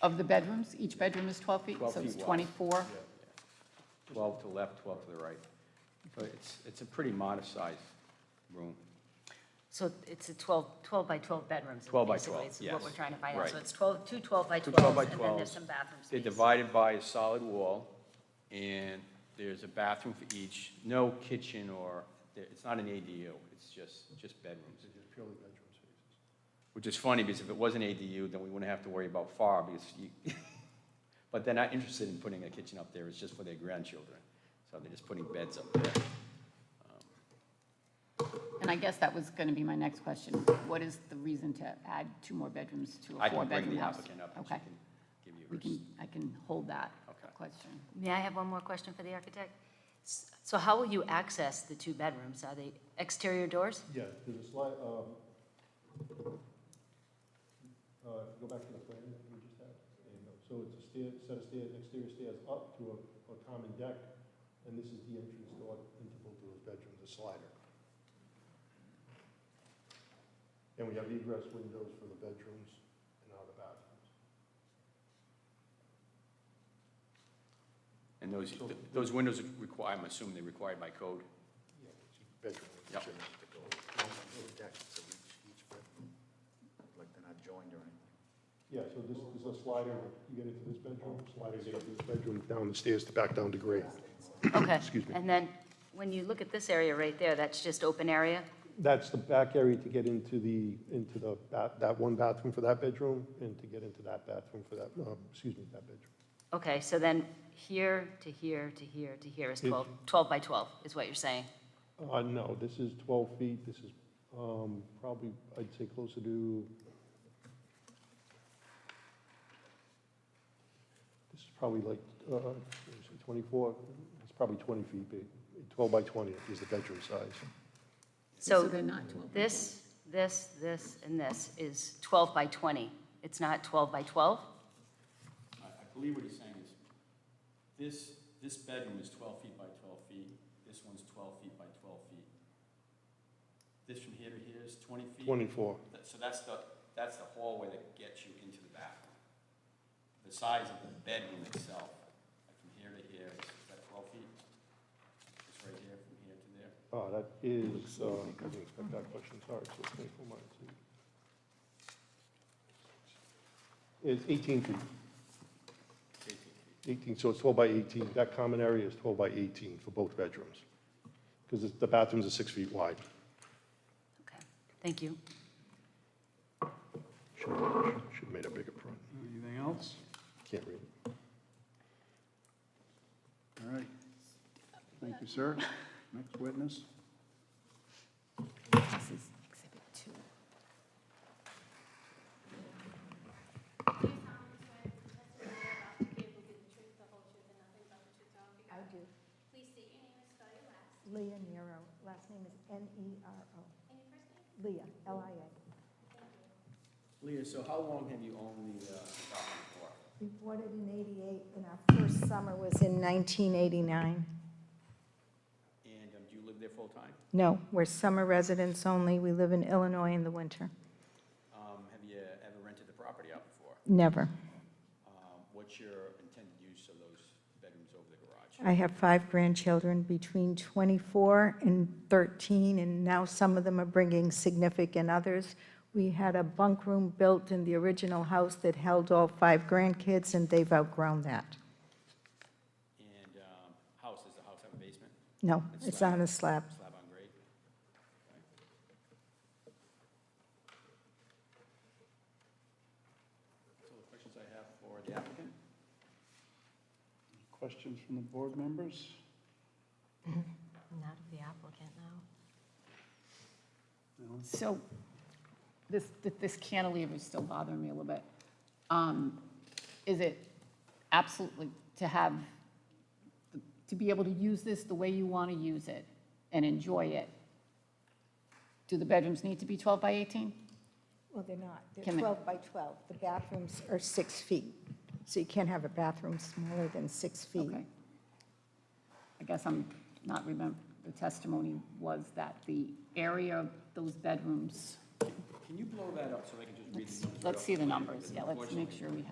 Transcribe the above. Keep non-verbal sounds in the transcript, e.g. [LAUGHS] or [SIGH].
Of the bedrooms, each bedroom is 12 feet? 12 So it's feet wide. 24? 12 to the left, 12 to the right. So it's, it's a pretty modest-sized room. So it's a 12, 12 by 12 bedrooms. 12 by basically, 12, is What we're yes. trying to find out. So Right. it's 12, two 12 by Two 12 by 12s, and then there's 12s. some bathroom They're space. divided by a solid wall, and there's a bathroom for each, no kitchen or, it's not an ADU, it's just, just bedrooms. purely bedroom spaces. Which is funny, because if it was an ADU, then we wouldn't have to worry about FAR, because you, [LAUGHS] but they're not interested in putting a kitchen up there, it's just for their grandchildren. So they're just putting beds up there. And I guess that was going to be my next question. What is the reason to add two more bedrooms to I a can bring four-bedroom the house? applicant up, and she Okay, can give you we hers. can, I can hold that Okay. question. May I have one more question for the architect? S- So how will you access the two bedrooms? Are they exterior [COUGHS] doors? Yeah, there's a slide, um, uh, if you go back to the plan that we just had. there you go. So it's a stair, set of stairs, exterior stairs up to a, a common deck, and this is the entrance door into both of those bedrooms, a slider. And we have egress windows for the bedrooms and out of the bathrooms. And those, those windows require, I'm assuming they're required by code? Yeah, bedroom. Yep. Like they're not joined or anything. Yeah, so this this is a slider, you get into this bedroom, sliders get into this bedroom, down the stairs to back down to grade. Okay. Excuse me. And then, when you look at this area right there, that's just open area? That's the back area to get into the, into the, ba- that one bathroom for that bedroom, and to get into that bathroom for that, um, excuse me, that bedroom. Okay, so then here to here to here to here is It- 12, 12 by 12, is what you're saying? Uh, no, this is 12 feet, this is um, probably, I'd say closer to, this is probably like, uh, let me see, 24, it's probably 20 feet big, 12 by 20 is the bedroom size. So they're not 12? this, this, this, and this is 12 by 20. It's not 12 by 12? I, I believe what he's saying is, this, this bedroom is twelve feet by twelve feet, this one's twelve feet by twelve feet. This from here to here is twenty feet. 24, That- So that's the, that's the hallway that gets you into the bathroom. The size of the bedroom itself, like from here to here, is is that twelve feet? It's right here, from here to there. oh, that is, uh, I didn't expect that question, sorry, so it's 24 minus 8. It's 18 feet. It's eighteen feet. 18, so it's 12 by 18, that common area is 12 by 18 for both bedrooms, because the bathrooms are six feet wide. Okay, thank you. Should have made a bigger print, Anything else? can't read. All right. Thank you, sir. Next witness. This is Exhibit 2. I do. Please state your name and spell your last. Leah Nero, last name is N-E-R-O. And your first name? Leah, L-I-A. Leah, so how long have you owned the, uh, property for? We bought it in 88, and our first summer was in 1989. And um, do you live there full-time? No, we're summer residents only, we live in Illinois in the winter. Um, have you ever rented the property out before? Never. Um, What's your intended use of those bedrooms over the garage? I have five grandchildren between 24 and 13, and now some of them are bringing significant others. We had a bunk room built in the original house that held all five grandkids, and they've outgrown that. And um, house, does the house have a basement, No, it's on a slab. slab on grade? That's all the questions I have for the applicant. Questions from the board members? Not the applicant, no. So this, th- this cantilever is still bothering me a little bit. Um, Is it absolutely to have, to be able to use this the way you want to use it and enjoy it? Do the bedrooms need to be 12 by 18? Well, they're not. Can They're I- 12 by 12. The bathrooms are six feet, so you can't have a bathroom smaller than six feet. Okay. I guess I'm not remember, the testimony was that the area of those bedrooms, Can you blow that up so I can just read the numbers? let's see the off plan? numbers. Because Yeah, let's make unfortunately, sure we have.